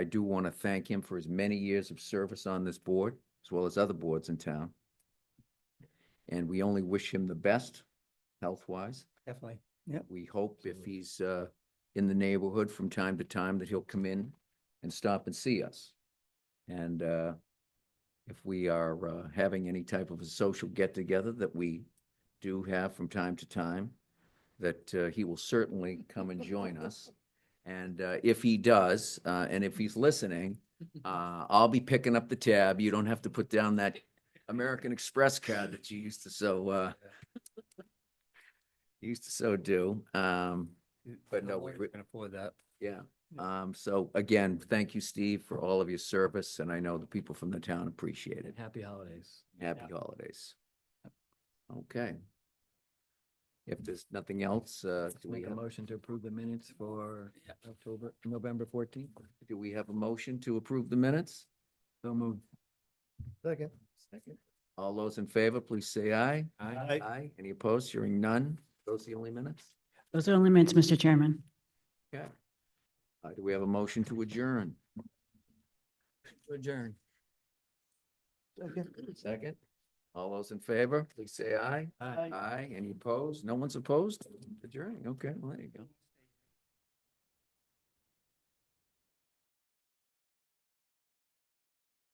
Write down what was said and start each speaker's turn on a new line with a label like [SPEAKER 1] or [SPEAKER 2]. [SPEAKER 1] I do want to thank him for his many years of service on this board, as well as other boards in town. And we only wish him the best, health-wise.
[SPEAKER 2] Definitely.
[SPEAKER 1] We hope if he's uh, in the neighborhood from time to time that he'll come in and stop and see us. And uh, if we are uh, having any type of a social get-together that we do have from time to time, that uh, he will certainly come and join us. And uh, if he does, uh, and if he's listening, uh, I'll be picking up the tab. You don't have to put down that American Express card that you used to so uh, used to so do. Um, But no, we-
[SPEAKER 2] We can afford that.
[SPEAKER 1] yeah. Um, so again, thank you, Steve, for all of your service, and I know the people from the town appreciate it.
[SPEAKER 2] And happy holidays.
[SPEAKER 1] Happy holidays. Okay. If there's nothing else, uh,
[SPEAKER 2] Let's
[SPEAKER 1] do we
[SPEAKER 2] Make a
[SPEAKER 1] have,
[SPEAKER 2] motion to approve the minutes for October, November fourteenth.
[SPEAKER 1] do we have a motion to approve the minutes?
[SPEAKER 2] So moved.
[SPEAKER 3] Second.
[SPEAKER 1] All those in favor, please say aye.
[SPEAKER 3] Aye.
[SPEAKER 1] Aye. Any opposed? Hearing none. Those the only minutes?
[SPEAKER 4] Those are the limits, Mr. Chairman.
[SPEAKER 1] Okay. Uh, do we have a motion to adjourn? Adjourn. Second. All those in favor, please say aye. Aye. Any opposed? No one's opposed? Adjourning. Okay, well, there you go.